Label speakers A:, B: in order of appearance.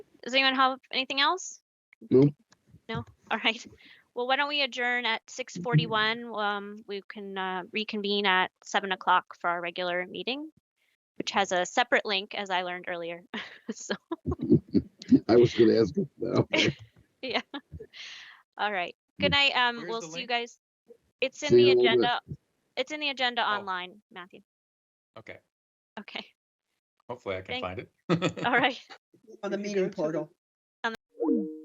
A: Does anyone have anything else?
B: No.
A: No? All right. Well, why don't we adjourn at six forty-one? Um, we can uh, reconvene at seven o'clock for our regular meeting, which has a separate link, as I learned earlier. So,
B: I was gonna ask if that.
A: all right. Good night. Um,
C: Where's
A: we'll
C: the
A: see you
C: link?
A: guys. It's in
B: See
A: the
B: you in a little bit.
A: agenda. It's in the agenda
C: Oh.
A: online, Matthew.
C: Okay,
A: Okay.
C: hopefully I can
A: Thank-
C: find it.
A: All right.
D: on the
E: If you
D: meeting
E: go to the-
D: portal.